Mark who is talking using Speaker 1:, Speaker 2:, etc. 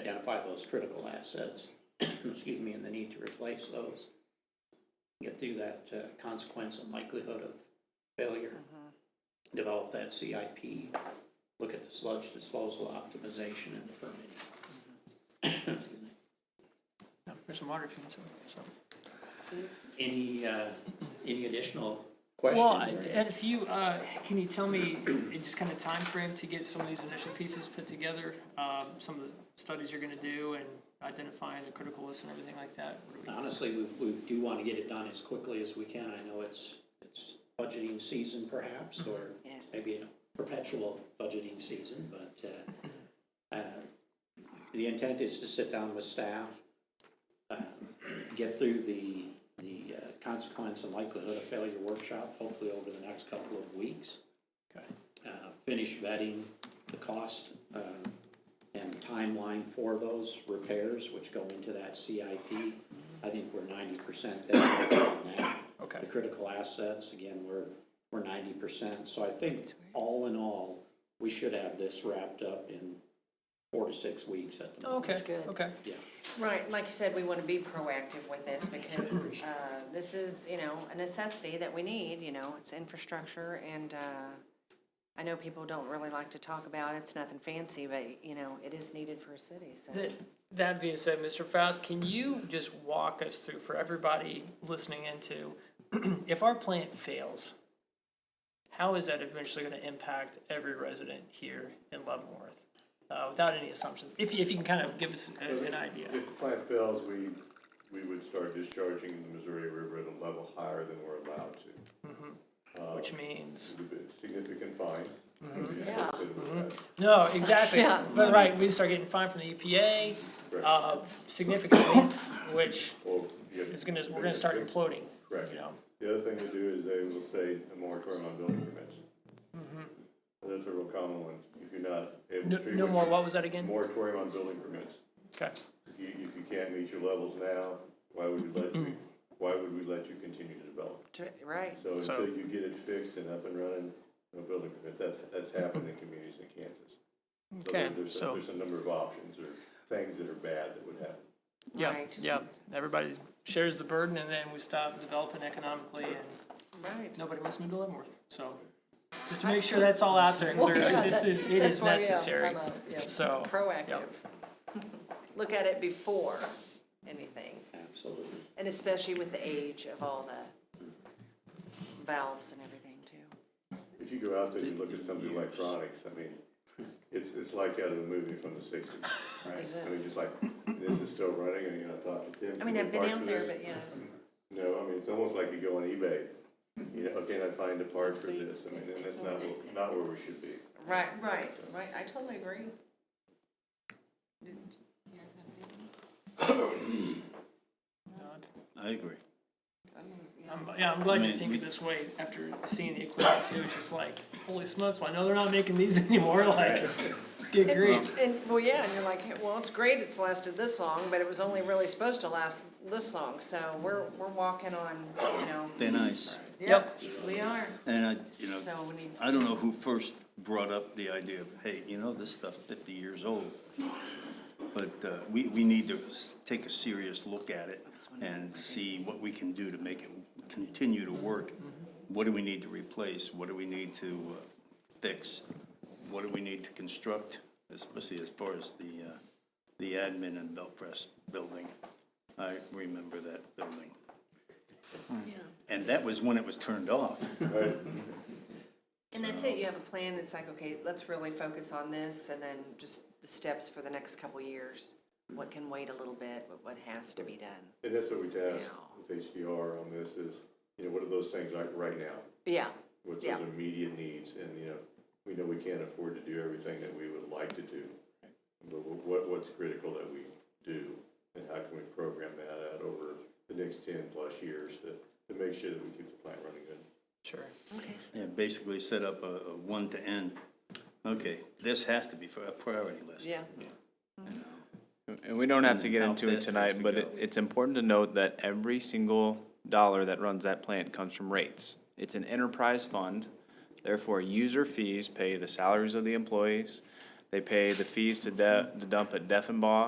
Speaker 1: identify those critical assets, excuse me, and the need to replace those. Get through that uh, consequence and likelihood of failure. Develop that CIP, look at the sludge disposal optimization and the permitting. Excuse me.
Speaker 2: No, There's some water fees, in there, so.
Speaker 1: Any, uh, any additional
Speaker 2: Well,
Speaker 1: questions? or-
Speaker 2: Ed, if you, uh, can you tell me, in just kind of time frame to get some of these initial pieces put together? Um, some of the studies you're gonna do and identifying the critical list and everything like that? What do we-
Speaker 1: Honestly, we, we do want to get it done as quickly as we can. I know it's, it's budgeting season perhaps, or
Speaker 3: Yes.
Speaker 1: maybe a perpetual budgeting season, but, uh, uh, the intent is to sit down with staff, uh, get through the, the uh, consequence and likelihood of failure workshop, hopefully over the next couple of weeks.
Speaker 2: Okay.
Speaker 1: Uh, finish vetting the cost, uh, and timeline for those repairs, which go into that CIP. I think we're ninety percent there on that.
Speaker 2: Okay.
Speaker 1: The critical assets, again, we're, we're ninety percent, so I think all in all, we should have this wrapped up in four to six weeks at the moment.
Speaker 2: Okay,
Speaker 3: good.
Speaker 2: okay.
Speaker 1: Yeah,
Speaker 3: Right, like you said, we want to be proactive with this because uh, this is, you know, a necessity that we need, you know, it's infrastructure and uh, I know people don't really like to talk about it, it's nothing fancy, but, you know, it is needed for a city, so.
Speaker 2: That, that being said, Mr. Faust, can you just walk us through for everybody listening into, if our plant fails, how is that eventually gonna impact every resident here in Leavenworth? Uh, without any assumptions, if, you- if you can kind of give us a- an idea.
Speaker 4: If the plant fails, we, we would start discharging in the Missouri River at a level higher than we're allowed to.
Speaker 2: Which means,
Speaker 4: With the Significant fines.
Speaker 2: Mm-hmm.
Speaker 4: Yeah.
Speaker 2: no, exactly, but right, we start getting fined from the EPA, uh, significantly, which is gonna, we're gonna start imploding,
Speaker 4: Correct.
Speaker 2: you know?
Speaker 4: The other thing they do is they will say a moratorium on building permits. And That's a real common one, if you're not able
Speaker 2: Mm-hmm. No,
Speaker 4: to.
Speaker 2: no more, what was that again?
Speaker 4: Moratorium on building permits.
Speaker 2: Okay,
Speaker 4: If you, if you can't meet your levels now, why would you let,
Speaker 2: Mm-hmm.
Speaker 4: you- why would we let you continue to develop?
Speaker 3: Tr- Right,
Speaker 4: So
Speaker 2: So-
Speaker 4: until you get it fixed and up and running, no building permits, that's, that's happened in communities in Kansas. So there-
Speaker 2: okay,
Speaker 4: there's a-
Speaker 2: so.
Speaker 4: There's a number of options or things that are bad that would happen.
Speaker 2: Yeah,
Speaker 3: Right.
Speaker 2: yeah, everybody shares the burden and then we stop developing economically and
Speaker 3: right.
Speaker 2: nobody wants to move to Leavenworth, so. Just to make sure that's all out there and clear, like, this is, it is necessary, so.
Speaker 3: Proactive.
Speaker 2: yep.
Speaker 3: Look at it before anything,
Speaker 1: absolutely.
Speaker 3: and especially with the age of all the valves and everything too.
Speaker 4: If you go out there and look at some of the electronics, I mean, it's, it's like out of a movie from the sixties.
Speaker 3: Is
Speaker 4: I
Speaker 3: it-
Speaker 4: mean, just like, this is still running and you're not talking to Tim.
Speaker 3: I mean,
Speaker 4: can
Speaker 3: I've been
Speaker 4: you parts
Speaker 3: out
Speaker 4: for
Speaker 3: there,
Speaker 4: this?
Speaker 3: but yeah,
Speaker 4: No, I mean, it's almost like you go on eBay, you know, "Oh, can I find a part for this? I mean, and that's not, where- not where we should be.
Speaker 3: right, right, right, I totally agree.
Speaker 2: No, it's-
Speaker 5: I agree.
Speaker 2: I'm- Yeah, I'm glad
Speaker 5: I
Speaker 2: you
Speaker 5: mean,
Speaker 2: think of
Speaker 5: we-
Speaker 2: this way after seeing the equipment too, it's just like, holy smokes, well, I know they're not making these anymore, like, good grief.
Speaker 3: And, well, yeah, and you're like, well, it's great it's lasted this long, but it was only really supposed to last this long, so we're, we're walking on, you know.
Speaker 5: They're nice.
Speaker 2: Yep.
Speaker 3: We are,
Speaker 5: And I, you know,
Speaker 3: so we need,
Speaker 5: I don't know who first brought up the idea of, hey, you know, this stuff's fifty years old. But uh, we, we need to s- take a serious look at it and see what we can do to make it continue to work. What do we need to replace? What do we need to uh, fix? What do we need to construct, especially as far as the, uh, the admin and belt press building? I remember that building. And that was when it was turned off.
Speaker 3: and that's it, you have a plan, it's like, okay, let's really focus on this, and then just the steps for the next couple years. What can wait a little bit, but what has to be done.
Speaker 4: And that's what we tasked
Speaker 3: Now.
Speaker 4: with HDR on this is, you know, what are those things like right now?
Speaker 3: Yeah,
Speaker 4: What's
Speaker 3: Yeah.
Speaker 4: those immediate needs? And, you know, we know we can't afford to do everything that we would like to do. But wh- what, what's critical that we do? And how can we program that out over the next ten plus years to, to make sure that we keep the plant running good?
Speaker 2: Sure.
Speaker 3: okay,
Speaker 5: Yeah, basically set up a, a one to end. Okay, this has to be for a priority list.
Speaker 3: yeah,
Speaker 6: And we don't have to get
Speaker 5: Mm, How
Speaker 6: into it
Speaker 5: fast things
Speaker 6: tonight,
Speaker 5: to
Speaker 6: but
Speaker 5: go.
Speaker 6: it, it's important to note that every single dollar that runs that plant comes from rates. It's an enterprise fund, therefore user fees pay the salaries of the employees. They pay the fees to de, to dump at Deffenbaugh,